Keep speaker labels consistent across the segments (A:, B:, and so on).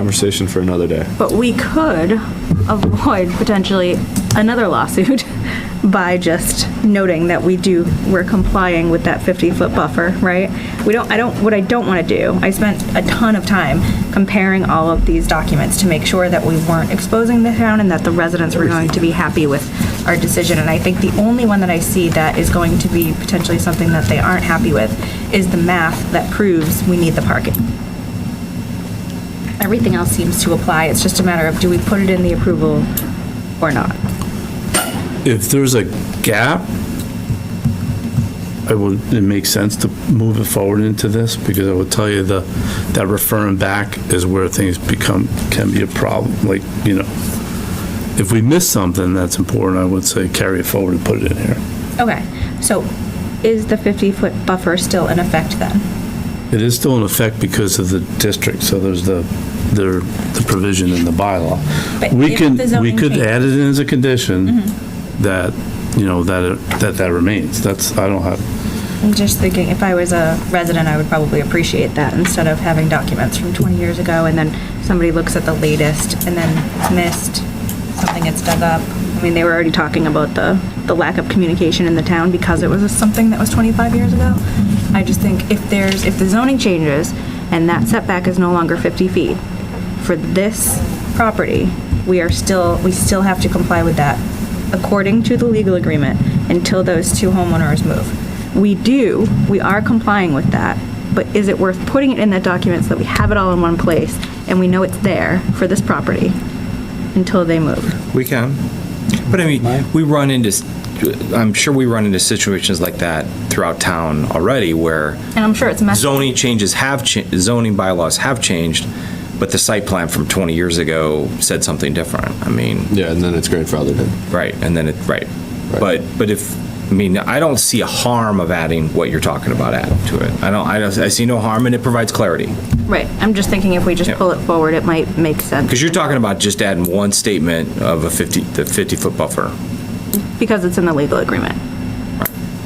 A: Conversation for another day.
B: But we could avoid potentially another lawsuit by just noting that we do, we're complying with that 50-foot buffer, right? We don't, I don't, what I don't want to do, I spent a ton of time comparing all of these documents to make sure that we weren't exposing the town and that the residents were going to be happy with our decision. And I think the only one that I see that is going to be potentially something that they aren't happy with is the math that proves we need the parking everything else seems to apply. It's just a matter of do we put it in the approval or not?
C: if there's a gap, it would, it makes sense to move it forward into this, because I would tell you the, that referring back is where things become, can be a problem, like, you know. If we miss something that's important, I would say carry it forward and put it in here.
B: Okay, so is the 50-foot buffer still in effect then?
C: It is still in effect because of the district, so there's the, there, the provision in the bylaw.
B: But
C: We
B: if
C: can,
B: the zoning Mm-hmm.
C: we could
B: changes-
C: add it in as a condition that, you know, that, it- that that remains. That's, I don't have,
B: I'm just thinking, if I was a resident, I would probably appreciate that instead of having documents from 20 years ago and then somebody looks at the latest and then it's missed, something gets dug up. I mean, they were already talking about the, the lack of communication in the town because it was something that was 25 years ago. I just think if there's, if the zoning changes and that setback is no longer 50 feet for this property, we are still, we still have to comply with that according to the legal agreement until those two homeowners move. We do, we are complying with that, but is it worth putting it in that document so that we have it all in one place and we know it's there for this property until they move?
D: We can. But I mean, we run into, s- I'm sure we run into situations like that throughout town already where
B: And I'm sure it's messy.
D: zoning changes have, cha- zoning bylaws have changed, but the site plan from 20 years ago said something different. I mean,
A: Yeah, and then it's grandfathered in.
D: right, and then it, right. But, but if, I mean, I don't see a harm of adding what you're talking about add to it. I don't, I don't, I see no harm and it provides clarity.
B: Right, I'm just thinking if we just
D: Yeah.
B: pull it forward, it might make sense.
D: Because you're talking about just adding one statement of a 50, the 50-foot buffer.
B: Because it's in the legal agreement.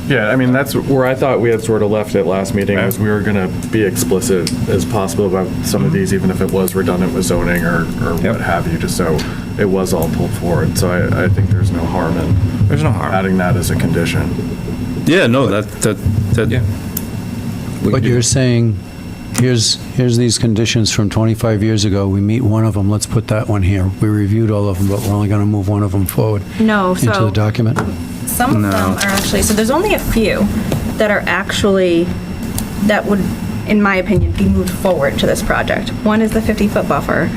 E: Yeah, I mean, that's where I thought we had sort of left it last meeting, was we were gonna be explicit as possible about some of these, even if it was redundant with zoning or, or
D: Yep.
E: what have you, just so it was all pulled forward. So I, I think there's no harm in.
D: There's no harm.
E: Adding that as a condition.
C: yeah, no, that, that,
D: Yeah.
C: that,
F: But you're saying, here's, here's these conditions from 25 years ago, we meet one of them, let's put that one here. We reviewed all of them, but we're only going to move one of them forward
B: No, Oh, so.
F: into the document.
B: Some of them
D: No.
B: are actually, so there's only a few that are actually, that would, in my opinion, be moved forward to this project. One is the 50-foot buffer,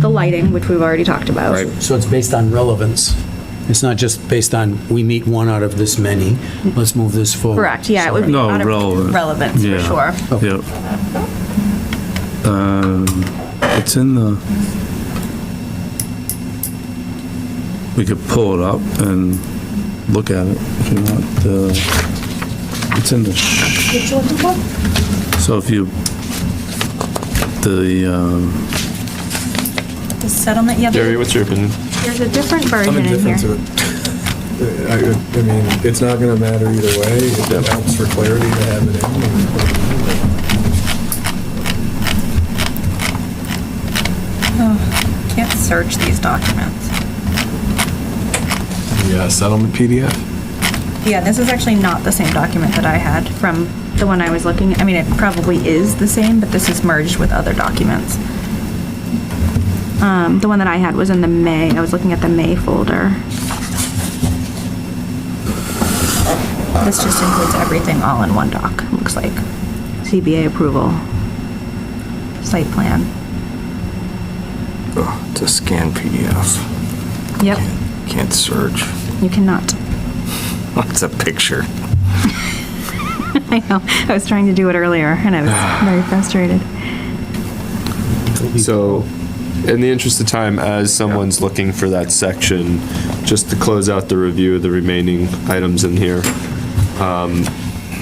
B: the lighting, which we've already talked about.
D: Right.
F: So it's based on relevance. It's not just based on, we meet one out of this many, let's move this forward.
B: Correct, yeah, it would be
C: No,
B: out of
C: relevant.
B: relevance, for
C: Yeah.
B: sure.
C: yep. Um, It's in the, we could pull it up and look at it if you want. The It's in the, sh- so if you, the, um,
B: The settlement, yeah,
A: Jerry,
B: there's
A: what's your opinion?
B: there's a different version
G: I'm
B: in
G: indifferent
B: here.
G: to it. I, I mean, it's not gonna matter either way. It helps for clarity to have it in.
B: Can't search these documents.
G: Yeah, uh, settlement PDF?
B: Yeah, this is actually not the same document that I had from the one I was looking, I mean, it probably is the same, but this is merged with other documents. Um, the one that I had was in the May, I was looking at the May folder. This just includes everything all in one doc, looks like. CBA approval. Site plan.
G: It's a scan PDF.
B: Yep,
G: Can't search.
B: you cannot.
G: It's a picture.
B: I know, I was trying to do it earlier and I was very frustrated.
A: So, in the interest of time, as someone's looking for that section, just to close out the review of the remaining items in here, um,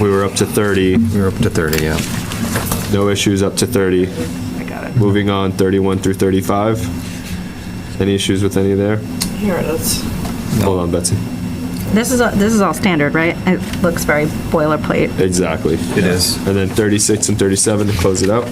A: we were up to 30,
D: We're up to 30, yeah.
A: no issues up to 30.
B: I got it.
A: Moving on, 31 through 35. Any issues with any there?
H: Here it is.
A: Hold on, Betsy.
B: This is, this is all standard, right? It looks very boilerplate.
A: Exactly.
D: It is.
A: And then 36 and 37 to close it out.